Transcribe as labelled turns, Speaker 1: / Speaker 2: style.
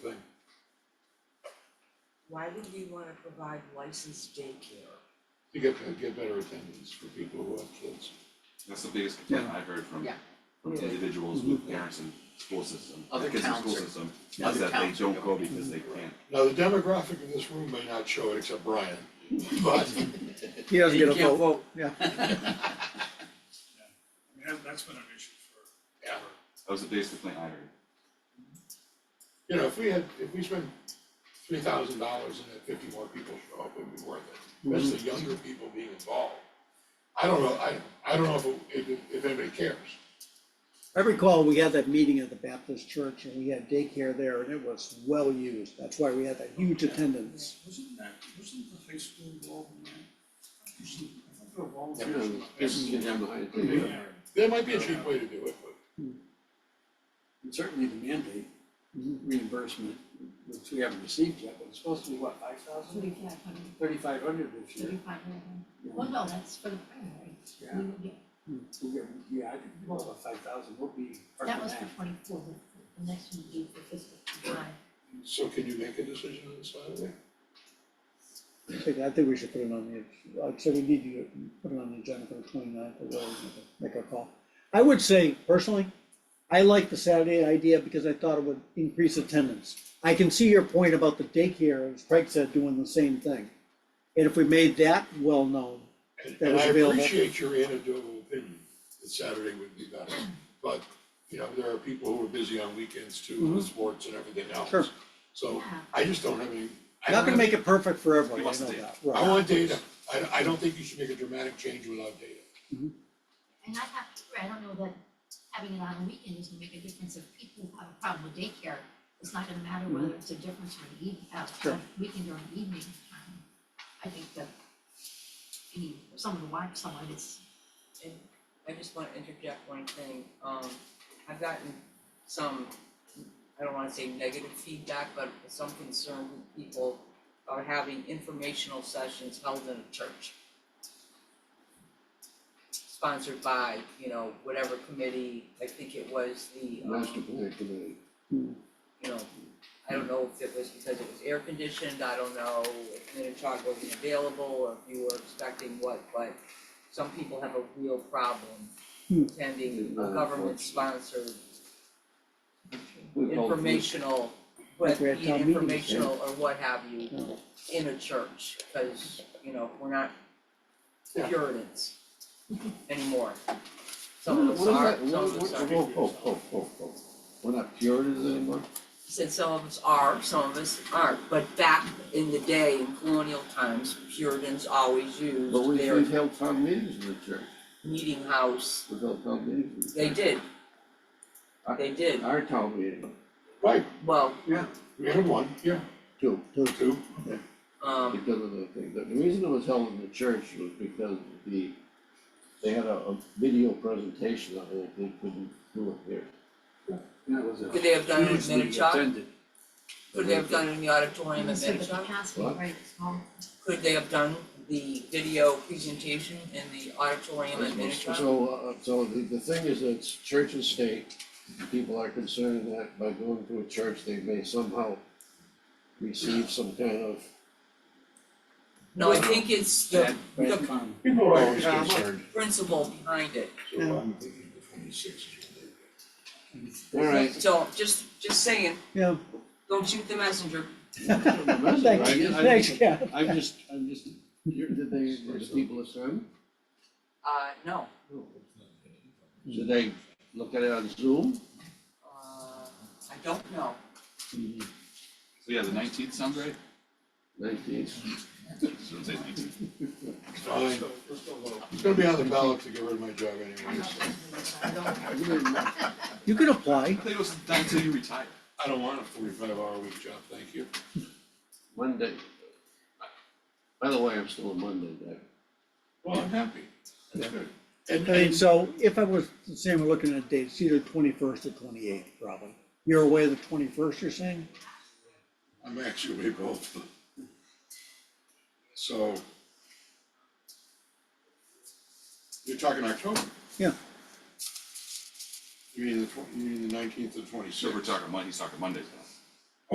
Speaker 1: why would we wanna provide licensed daycare?
Speaker 2: to get, get better attendance for people who have kids.
Speaker 3: That's the biggest complaint I've heard from
Speaker 4: Yeah. Mm-hmm.
Speaker 3: from
Speaker 1: Really?
Speaker 3: individuals with parents and school system,
Speaker 4: Other
Speaker 3: kids in school
Speaker 4: towns are-
Speaker 3: system,
Speaker 4: other
Speaker 3: is that they
Speaker 4: towns are
Speaker 3: don't go because they can't.
Speaker 2: Now, the demographic of this room may not show it except Brian, but
Speaker 5: He doesn't
Speaker 4: You
Speaker 5: get a
Speaker 4: can't
Speaker 5: vote, yeah.
Speaker 6: I mean, that, that's been an issue for,
Speaker 2: Yeah.
Speaker 6: for
Speaker 3: That was the biggest complaint I heard.
Speaker 2: You know, if we had, if we spent three thousand dollars and had fifty more people show up, it would be worth it, especially younger people being involved. I don't know, I, I don't know if, it- if, if anybody cares.
Speaker 5: I recall we had that meeting at the Baptist church and we had daycare there and it was well used. That's why we had that huge attendance.
Speaker 6: Wasn't that, wasn't the high school involved in that? Wasn't- I thought they were
Speaker 4: You
Speaker 6: volunteers.
Speaker 4: know, this is gonna have the-
Speaker 6: Yeah.
Speaker 2: There might be a cheap way to do it, but
Speaker 7: And certainly the mandate reimbursement, which we haven't received yet, but it's supposed to be what, five thousand?
Speaker 8: Thirty-five hundred,
Speaker 7: Thirty-five hundred this year.
Speaker 8: thirty-five hundred. Well, no, that's for the primary.
Speaker 7: Yeah.
Speaker 8: We would get-
Speaker 7: We'll get, yeah, I think well, about five thousand will be part
Speaker 8: That
Speaker 7: of
Speaker 8: was
Speaker 7: that.
Speaker 8: for twenty-four, but the next one would be for fiscal twenty-five.
Speaker 2: so can you make a decision on this Saturday?
Speaker 5: I think, I think we should put it on the, I'd say we need to put it on the agenda for the twenty-ninth, or we'll make a call. I would say personally, I like the Saturday idea because I thought it would increase attendance. I can see your point about the daycare, as Craig said, doing the same thing. And if we made that well-known,
Speaker 2: And-
Speaker 5: That
Speaker 2: And
Speaker 5: is
Speaker 2: I
Speaker 5: available.
Speaker 2: appreciate your anecdotal opinion that Saturday would be better, but, you know, there are people who are busy on weekends too, with sports and everything else.
Speaker 5: Sure.
Speaker 2: So I just don't have any. I don't
Speaker 5: not gonna
Speaker 2: have-
Speaker 5: make it perfect for everyone,
Speaker 3: You
Speaker 5: I
Speaker 3: must
Speaker 5: know
Speaker 3: do.
Speaker 5: that,
Speaker 2: I
Speaker 5: right.
Speaker 2: want data. I, I don't think you should make a dramatic change without data.
Speaker 8: And I have to agree, I don't know that having it on a weekend is gonna make a difference if people have a problem with daycare. It's not gonna matter whether it's a difference or an evening, uh,
Speaker 5: Sure.
Speaker 8: a weekend or an evening. Um, I think that, I mean, for someone to watch someone, it's,
Speaker 1: And I just wanna interject one thing, um, I've gotten some, I don't wanna say negative feedback, but some concern with people are having informational sessions held in a church. Sponsored by, you know, whatever committee, I think it was the, um,
Speaker 4: Master plan committee.
Speaker 1: you know, I don't know if it was because it was air conditioned, I don't know if Minichog wasn't available or if you were expecting what, but some people have a real problem
Speaker 5: Hmm.
Speaker 1: attending a
Speaker 4: Not
Speaker 1: government sponsored
Speaker 4: We call it-
Speaker 1: informational, but
Speaker 5: we had
Speaker 1: be
Speaker 5: town meeting today.
Speaker 1: informational or what have you
Speaker 5: Yeah.
Speaker 1: in a church, cause you know, we're not
Speaker 2: Yeah.
Speaker 1: Puritans anymore. Some of
Speaker 4: What is
Speaker 1: us are,
Speaker 4: that,
Speaker 1: some
Speaker 4: what,
Speaker 1: of us
Speaker 4: what,
Speaker 1: are.
Speaker 4: whoa, whoa, whoa, whoa, whoa. We're not Puritans anymore?
Speaker 1: since some of us are, some of us aren't, but back in the day, in colonial times, Puritans always
Speaker 4: But
Speaker 1: used
Speaker 4: we,
Speaker 1: their
Speaker 4: we've held town meetings in the church.
Speaker 1: meeting house,
Speaker 4: We've held town meetings in
Speaker 1: they
Speaker 4: the church.
Speaker 1: did. They did,
Speaker 4: Our town meeting,
Speaker 2: Right,
Speaker 1: well,
Speaker 2: we had one, yeah,
Speaker 4: too,
Speaker 2: two.
Speaker 1: um,
Speaker 4: because of the thing. The the reason it was held in the church was because the, they had a, a video presentation of it, they couldn't do it here.
Speaker 7: That was a
Speaker 1: Could they have done it in
Speaker 7: hugely
Speaker 1: Minichog?
Speaker 7: attended.
Speaker 1: could they have done in the auditorium in
Speaker 8: so the
Speaker 1: Manchester?
Speaker 8: capacity,
Speaker 4: What?
Speaker 8: right, it's small.
Speaker 1: Could they have done the video presentation in the auditorium in Manchester?
Speaker 4: So, uh, so the, the thing is, it's church and state, people are concerned that by going to a church, they may somehow receive some kind of,
Speaker 1: No, I think it's the,
Speaker 7: Bad,
Speaker 1: the
Speaker 7: bad comment.
Speaker 2: People are always concerned,
Speaker 1: principle behind it,
Speaker 2: so I'm thinking the twenty-sixth.
Speaker 4: alright.
Speaker 1: so just, just saying,
Speaker 5: Yeah,
Speaker 1: don't shoot the messenger.
Speaker 5: thank you, thanks, Ken.
Speaker 4: I'm just, I'm just, you're, did they, were the people assume?
Speaker 1: Uh, no,
Speaker 4: Should they look at it on Zoom?
Speaker 1: uh, I don't know.
Speaker 3: So yeah, the nineteenth sounds right,
Speaker 4: Nineteen,
Speaker 3: shouldn't say nineteenth,
Speaker 2: Fine, it's gonna be on the ballot to get rid of my job anyway, so
Speaker 8: I don't
Speaker 5: You can apply.
Speaker 3: I think it was done until you retire.
Speaker 2: I don't want a forty-five hour week job, thank you.
Speaker 4: Monday. By the way, I'm still a Monday guy.
Speaker 2: Well, I'm happy, that's good. And,
Speaker 5: I mean,
Speaker 2: and
Speaker 5: so if I was, saying we're looking at dates, either twenty-first or twenty-eighth, probably. You're away the twenty-first, you're saying?
Speaker 2: I'm actually both. So. You're talking October?
Speaker 5: Yeah.
Speaker 2: You mean the twen- you mean the nineteenth and
Speaker 3: So
Speaker 2: twenty-sixth?
Speaker 3: we're talking Monday, he's talking Mondays now.